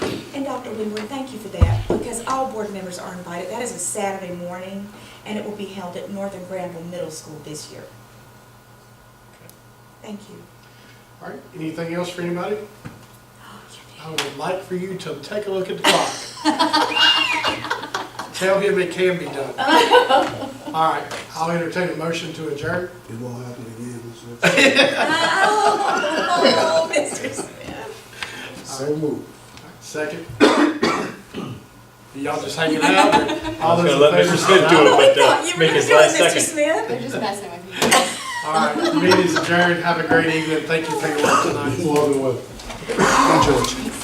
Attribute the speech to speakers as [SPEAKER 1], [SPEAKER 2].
[SPEAKER 1] Dr. Winwood, thank you for that, because all board members are invited. That is a Saturday morning, and it will be held at Northern Granville Middle School this year. Thank you.
[SPEAKER 2] All right, anything else for anybody?
[SPEAKER 1] Oh, you
[SPEAKER 2] I would like for you to take a look at the clock. Tell him it can be done. All right, I'll entertain a motion to adjourn.
[SPEAKER 3] It won't happen again, so,
[SPEAKER 4] uh,
[SPEAKER 1] did. Oh, Mr. Smith.
[SPEAKER 3] so moved.
[SPEAKER 2] Second. Y'all just hanging out? or all
[SPEAKER 4] I was
[SPEAKER 2] those
[SPEAKER 4] gonna let
[SPEAKER 2] in favor
[SPEAKER 4] Mr.
[SPEAKER 2] say
[SPEAKER 4] Smith do
[SPEAKER 2] aye?
[SPEAKER 1] I
[SPEAKER 4] it, but
[SPEAKER 1] thought you
[SPEAKER 4] uh,
[SPEAKER 1] were
[SPEAKER 4] make
[SPEAKER 1] doing
[SPEAKER 4] his last
[SPEAKER 1] Mr.
[SPEAKER 4] second.
[SPEAKER 1] Smith.
[SPEAKER 5] They're just messing with you.
[SPEAKER 2] All right, meeting's adjourned. Have a great evening. Thank you for your work tonight.
[SPEAKER 3] You're welcome. George.